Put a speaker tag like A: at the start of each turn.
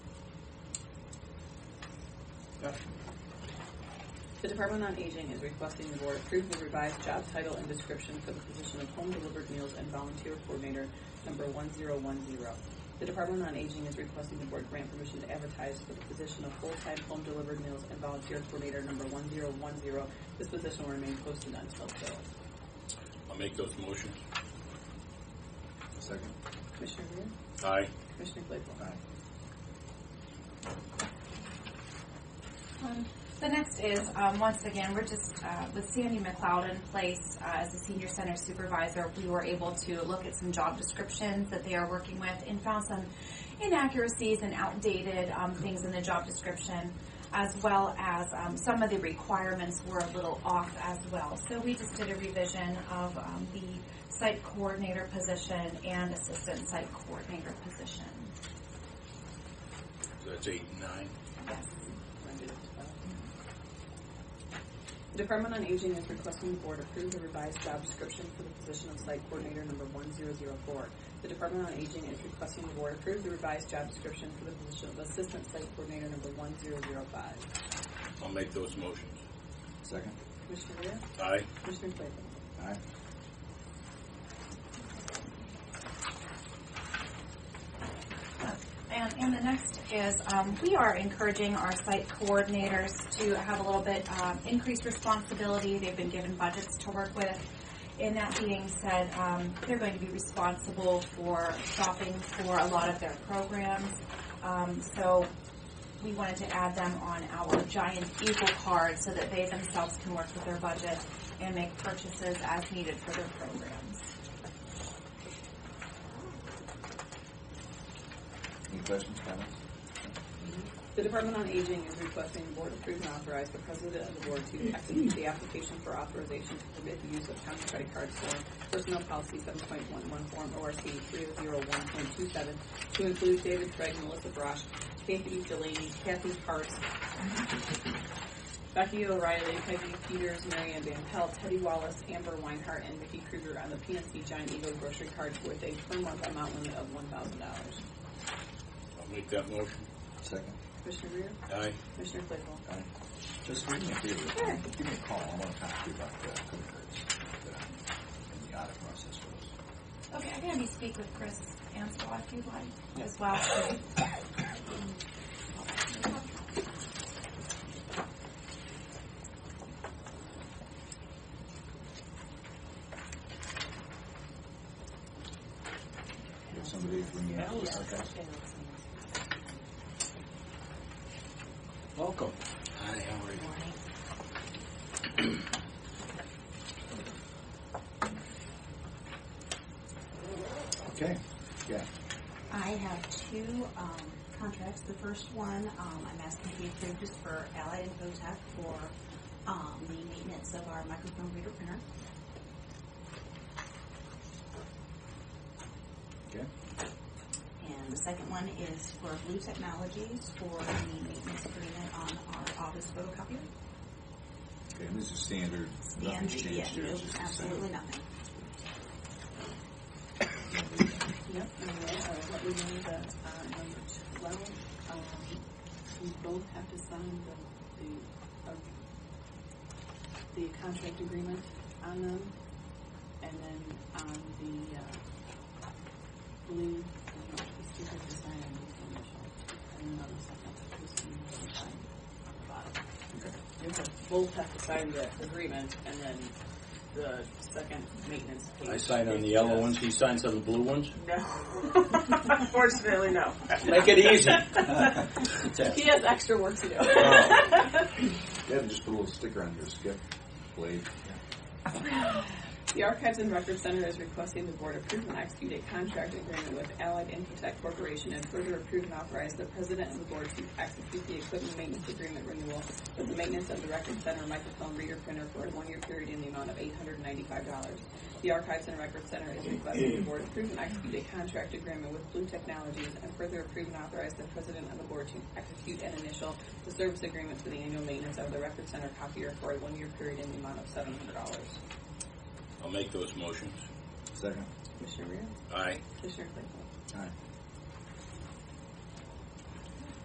A: The Department on Aging is requesting the board approve the revised job title and description for the position of home delivered meals and volunteer coordinator number one zero one zero. The Department on Aging is requesting the board grant permission to advertise for the position of full-time home delivered meals and volunteer coordinator number one zero one zero. This position will remain posted until filled.
B: I'll make those motions.
C: Second.
A: Commissioner Rea?
B: Aye.
A: Commissioner Claypool?
C: Aye.
D: Um, The next is, um, once again, we're just, uh, with Sandy McLeod in place uh, as the senior center supervisor, we were able to look at some job descriptions that they are working with and found some inaccuracies and outdated um, things in the job description, as well as um, some of the requirements were a little off as well. So we just did a revision of um, the site coordinator position and assistant site coordinator position.
B: So that's eight and nine.
D: Yes.
A: The Department on Aging is requesting the board approve the revised job description for the position of site coordinator number one zero zero four. The Department on Aging is requesting the board approve the revised job description for the position of assistant site coordinator number one zero zero five.
B: I'll make those motions.
C: Second.
A: Commissioner Rea?
B: Aye.
A: Commissioner Claypool?
C: Aye.
D: And, and the next is, um, we are encouraging our site coordinators to have a little bit, um, increased responsibility. They've been given budgets to work with. And that being said, um, they're going to be responsible for shopping for a lot of their programs. Um, so we wanted to add them on our giant eagle card so that they themselves can work with their budget and make purchases as needed for their programs.
C: Any questions, comments?
A: The Department on Aging is requesting the board approve and authorize the president of the board to execute the application for authorization to permit the use of county credit cards for personnel policy seven point one one form ORC three oh zero one point two seven to include David Craig, Melissa Brosh, Kathy Delaney, Kathy Hart, Becky O'Reilly, Peggy Peters, Mary Ann Van Pelt, Teddy Wallace, Amber Weinhardt, and Vicki Krueger on the PNC Giant Eagle grocery card with a per month amount limit of one thousand dollars.
B: I'll make that motion.
C: Second.
A: Commissioner Rea?
B: Aye.
A: Commissioner Claypool?
C: Aye. Just do me a favor.
D: Sure.
C: Give me a call. I want to talk to you about the credit cards that I'm in the audit process for.
D: Okay, I'm gonna be speak with Chris Ansel if you'd like as well.
C: You have somebody from the audit process?
B: Welcome. Hi, how are you?
C: Okay. Yeah.
E: I have two um, contracts. The first one, um, I'm asking to be approved, is for Allied and Votech for um, the maintenance of our microphone reader printer.
C: Okay.
E: And the second one is for Blue Technologies for the maintenance agreement on our office photocopier.
C: Okay. And this is standard.
E: And
C: Nothing's
E: the-
C: changed here.
E: yeah, nope,
C: It's just the same.
E: Absolutely nothing.
A: Yep, and then, uh, what we need, uh, uh, number twelve, um, we both have to sign the, the, uh, the contract agreement on them, and then on the, uh, blue, you know, we still have to sign on this initial, and another second, who's going to sign the bottom.
C: Okay.
A: You have- both have to sign the agreement, and then the second maintenance page.
B: I sign on the
A: is uh,
B: yellow
A: just-
B: ones, he signs on the blue ones?
A: No. Unfortunately, no.
B: Make it easy.
A: He has extra work to do.
C: Wow. Yeah, just put a little sticker on your skip blade.
A: the Archives and Records Center is requesting the board approve and execute a contract agreement with Allied Infotech Corporation and further approve and authorize the president and the board to execute the equipment maintenance agreement renewal with the maintenance of the Records Center microphone reader printer for a one-year period in the amount of $895. The Archives and Records Center is requesting the board approve and execute a contract agreement with Blue Technologies and further approve and authorize the president and the board to execute and initial the service agreement for the annual maintenance of the Records Center copier for a one-year period in the amount of $700.
B: I'll make those motions.
C: Second.
A: Commissioner Rea?
B: Aye.
A: Commissioner Claypool?
C: Aye.